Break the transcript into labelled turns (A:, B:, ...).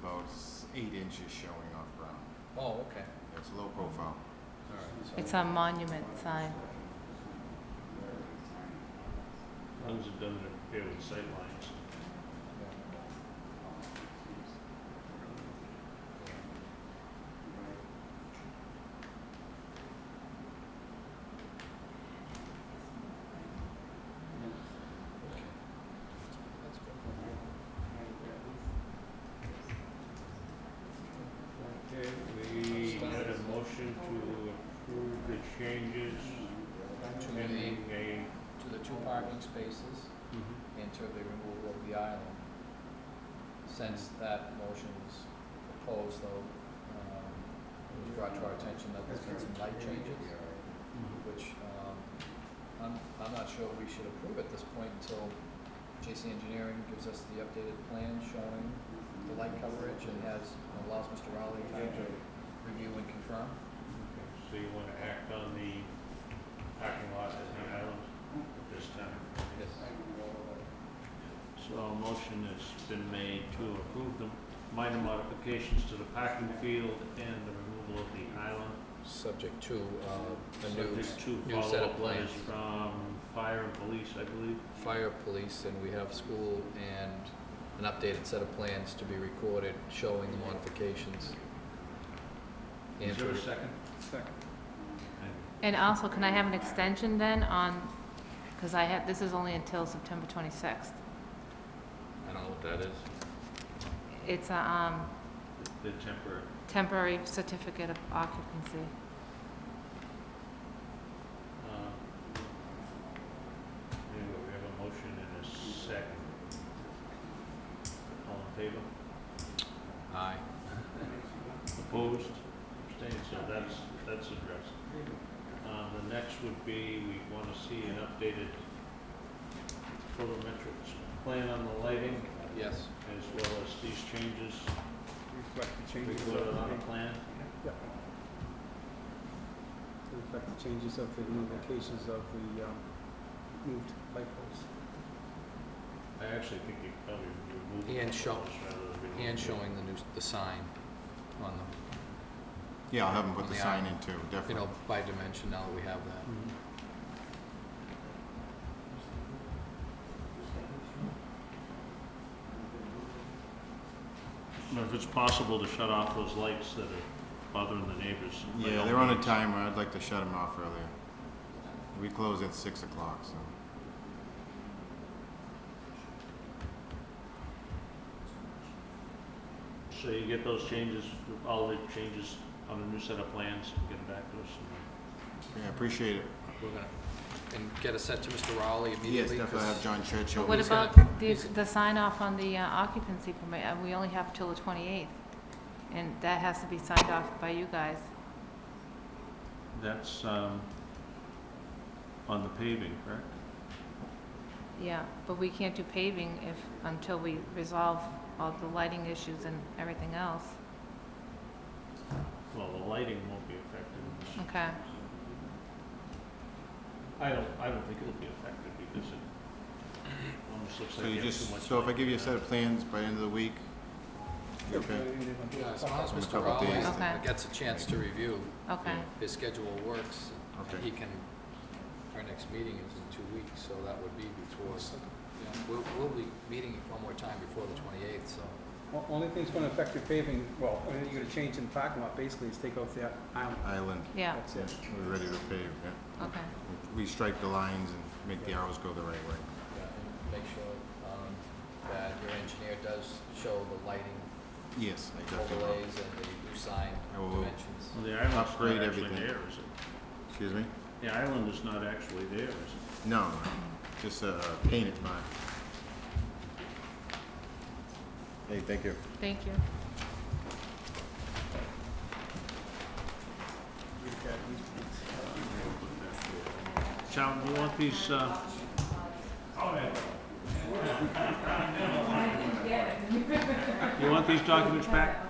A: Oh.
B: eight inches showing off ground.
A: Oh, okay,
B: It's low profile.
A: all right. so-
C: um,
D: It's a monument sign.
E: As long as it doesn't interfere with sightlines.
A: That's good.
E: Okay, we had a motion to approve the changes
A: To
E: pending
A: the,
E: a.
A: to the two parking spaces and to the removal of the island. Since that motion was proposed, though, um, it was brought to our attention that there's been some light changes, which, um, I'm, I'm not sure we should approve at this point until JC Engineering gives us the updated plan showing the light coverage and has, allows Mr. Rowley time to review and confirm.
E: So you wanna act on the parking lot at the island at this time?
A: Yes.
E: So a motion has been made to approve the minor modifications to the parking field and the removal of the island.
A: Subject to, uh, a new
E: Subject to
A: new set of
E: follow-up letters
A: plans.
E: from fire and police, I believe.
A: fire police, and we have school and an updated set of plans to be recorded showing the modifications.
E: Is there a
A: Andrew,
E: second?
B: Second.
E: Okay.
D: And also, can I have an extension then on, because I have, this is only until September 26th.
A: I don't know what that is.
D: It's a um,
E: The temporary.
D: temporary certificate of occupancy.
E: uh, Anyway, we have a motion and a second. All in favor?
A: Aye.
E: Opposed? Abstained, so that's, that's addressed. Uh, the next would be, we wanna see an updated photometrics plan on the lighting,
A: Yes.
E: as well as these changes
C: Reflect the changes of
E: recorded on the
C: the,
E: plan.
C: reflect the changes of the new locations of the, um, moved light poles.
E: I actually think you probably remove the
A: And show-
E: photos rather than remove
A: And
E: the-
A: showing the new, the sign on
B: Yeah, I'll have them
A: On
B: put the
A: the
B: sign in too,
A: the, you know,
B: definitely.
A: by dimension now that we have that.
E: Now, If it's possible to shut off those lights that are bothering the neighbors. by
B: Yeah,
E: all
B: they're on a
E: means.
B: timer. I'd like to shut them off earlier. We close at six o'clock, so.
E: So you get those changes, all the changes on a new set of plans, get them back to us. and
B: Yeah, appreciate it.
A: We're gonna, and get a set to Mr. Rowley
B: Yes,
A: immediately.
B: definitely I'll have
A: 'cause-
B: John Churchill.
D: What
A: he's
D: about
A: gonna-
D: the,
A: he's-
D: the sign off on the uh, occupancy permit? Uh, We only have till the 28th. And that has to be signed off by you guys.
E: That's, um, on the paving, correct?
D: Yeah, but we can't do paving if, until we resolve all the lighting issues and everything else.
E: Well, the lighting won't be affected. in this.
D: Okay.
E: I don't, I don't think it'll be affected because it almost looks
B: So
E: like
B: you
E: you have too
B: just,
E: much.
B: so if I
E: light.
B: give you a set of plans by end of the week, you okay?
C: Uh,
A: Yeah, as long as
B: In a
A: Mr.
B: couple of days.
A: Rowley
D: Okay.
A: gets a chance to review
D: Okay.
A: his schedule works,
B: Okay.
A: he can, our next meeting is in two weeks, so that would be before, yeah, we'll, we'll be meeting one more time before the twenty-eighth, so.
C: O- Only thing that's gonna affect your paving, well, only thing you're gonna change in the parking lot basically is take off the island.
B: Island,
D: Yeah,
C: That's it.
B: we're ready to pave, yeah.
D: okay.
B: We strike the lines and make the arrows go the right way.
A: Yeah, and make sure, um, that your engineer does show the lighting
B: Yes, I definitely will.
A: overlays and the new sign
B: I will.
A: dimensions.
E: Well, the island's not
B: upgrade
E: actually
B: everything.
E: there, is it?
B: Excuse me?
E: The island is not actually there, is it?
B: No, no, just a painted mine. Hey, thank you.
D: Thank you.
E: Chow, do you want these, uh? Oh, yeah. You want these documents back?